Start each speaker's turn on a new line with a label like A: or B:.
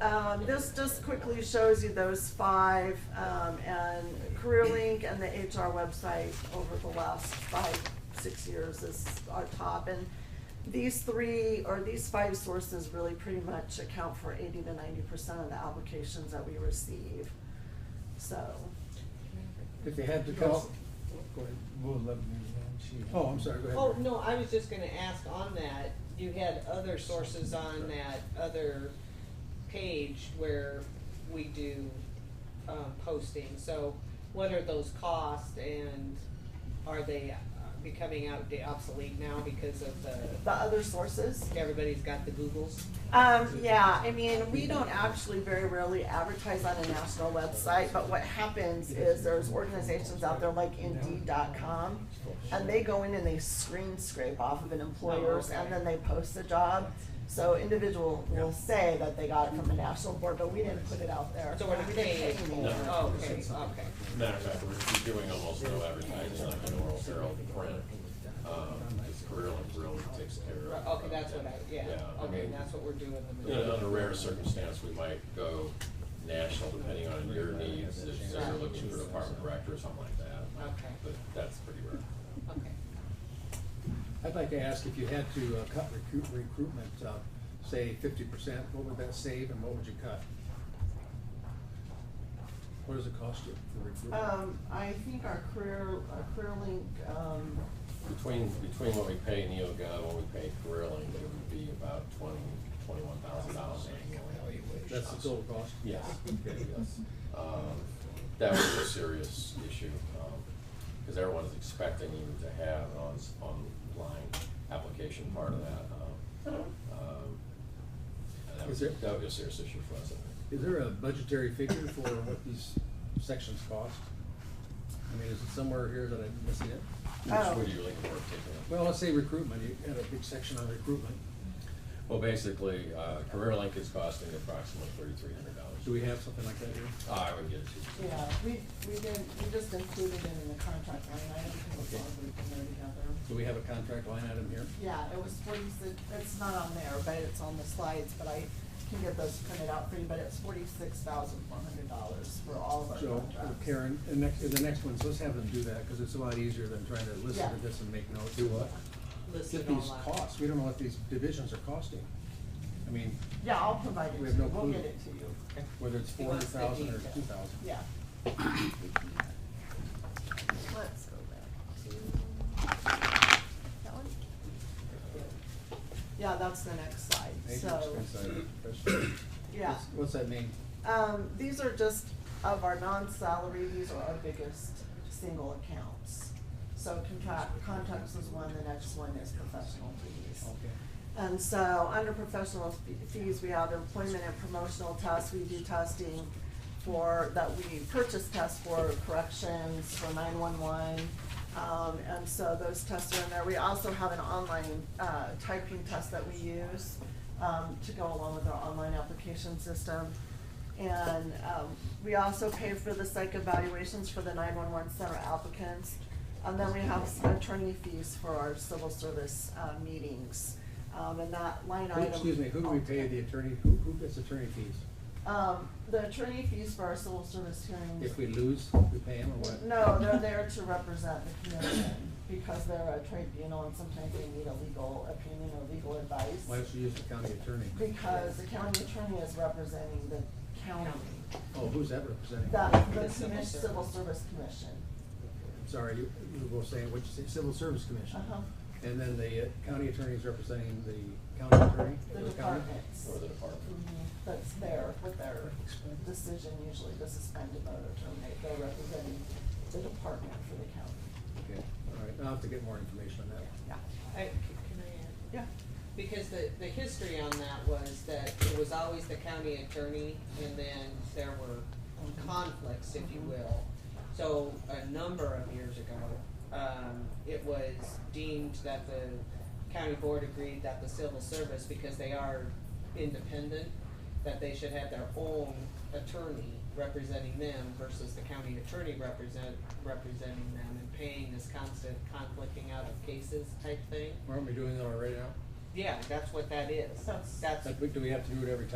A: um, this just quickly shows you those five, um, and CareerLink and the HR website over the last five, six years is our top. And these three, or these five sources really pretty much account for eighty to ninety percent of the applications that we receive, so.
B: If you had to call, go ahead.
C: We'll let me, um, she.
B: Oh, I'm sorry, go ahead.
D: Oh, no, I was just gonna ask on that, you had other sources on that other page where we do, um, posting, so what are those costs and are they uh, becoming outdated, obsolete now because of
A: The
D: the,
A: other sources,
D: everybody's got the Googles?
A: Um, yeah, I mean, we don't actually very rarely advertise on a national website, but what happens is there's organizations out there like Indeed.com, and they go in and they screen scrape off of an employer's, and then they post the job. So individual will say that they got it from a national board, but we didn't put it out there.
D: So we're not
A: We didn't
D: paying.
A: pay anyone.
D: Oh, okay, okay.
E: Matter of fact, we're doing almost no advertising on the Oral Herald print, um, because Career Link really takes care
D: Right,
E: of.
D: Okay, that's what I, yeah,
E: Yeah, I
D: okay,
E: mean-
D: that's what we're doing. them in.
E: You know, under rare circumstance, we might go national depending on your needs, if you're looking for a department director or something like that.
D: Okay.
E: But that's pretty rare.
D: Okay.
B: I'd like to ask if you had to uh, cut recruit, recruitment, uh, say fifty percent, what would that save and what would you cut? What does it cost you for
D: Oh. Uh,
B: recruitment?
A: Um, I think our career, our career link, um,
E: Between, between what we pay NeoGov, what we pay Career Link, it would be about twenty, twenty-one thousand dollars annually.
B: That's the total cost?
E: Yes, yes. Um, That was a serious issue, um, because everyone's expecting you to have an on- online application part of that. um, um, and That
B: Is
E: was,
B: there-
E: that would be a serious issue for us, I think.
B: Is there a budgetary figure for what these sections cost? I mean, is it somewhere here that I'm missing it?
A: Oh.
E: Which would you looking for particularly?
B: Well, let's say recruitment, you had a big section on recruitment.
E: Well, basically, uh, CareerLink is costing approximately thirty-three hundred dollars. Uh,
B: Do we have something like that here?
E: I would get it to you.
A: yeah, we, we didn't, we just included it in the contract line item because it's all grouped in there together.
B: Do we have a contract line item here?
A: Yeah, it was forty-six, it's not on there, but it's on the slides, but I can get those printed out for you, but it's forty-six thousand four hundred dollars for all of our
B: So,
A: contracts.
B: Karen, and next, the next one's, let's have them do that, because it's a lot easier than trying to listen to
A: Yeah.
B: this and make notes. Do what?
D: Listed
B: Get these
D: online.
B: costs, we don't know what these divisions are costing. I mean,
A: Yeah, I'll provide it to
B: We have
A: you,
B: no
A: we'll
B: clue.
A: get it to you,
B: whether it's
D: He
B: four
D: wants
B: hundred
D: the
B: thousand or
D: detail.
B: two thousand.
A: yeah.
F: Let's go back to that one.
A: Yeah, that's the next slide, so, yeah.
B: What's that mean?
A: Um, these are just of our non-salary, these are our biggest single accounts. So contract, contacts is one, the next one is professional fees. And so, under professional fe- fees, we have employment and promotional tests, we do testing for, that we purchase tests for corrections, for nine-one-one. Um, and so those tests are in there, we also have an online, uh, typing test that we use, um, to go along with our online application system. And, um, we also pay for the psych evaluations for the nine-one-one center applicants. And then we have s- attorney fees for our civil service, uh, meetings. Um, and that line
B: Who-
A: item.
B: Excuse me, who do we pay the attorney, who, who gets attorney fees?
A: Um, the attorney fees for our civil service hearings.
B: If we lose, we pay him or what?
A: No, they're there to represent the commission because they're a tribunal and sometimes they need a legal opinion or legal advice.
B: Why don't you use the county attorney?
A: Because the county attorney is representing the county,
B: Oh, who's that representing?
A: that, the
D: The civil
A: commission,
D: service.
A: civil service commission.
B: Sorry, you, you were saying, what you say, civil service commission?
A: Uh-huh,
B: And then the uh, county attorney is representing the county attorney?
A: the
B: or county?
A: departments.
E: Or the department.
A: Mhm, That's there with their decision usually to suspend a vote or terminate, they're representing the department for the county,
B: Okay, all right, I'll have to get more information on that.
A: yeah.
D: I, can I add?
A: Yeah.
D: Because the, the history on that was that it was always the county attorney, and then there were conflicts, if you will. So a number of years ago, um, it was deemed that the county board agreed that the civil service, because they are independent, that they should have their own attorney representing them versus the county attorney represent, representing them and paying this constant conflicting out of cases type thing.
B: Aren't we doing that already now?
D: Yeah, that's what that is.
A: That's-
D: That's
B: Like, we- do we have to do it every time?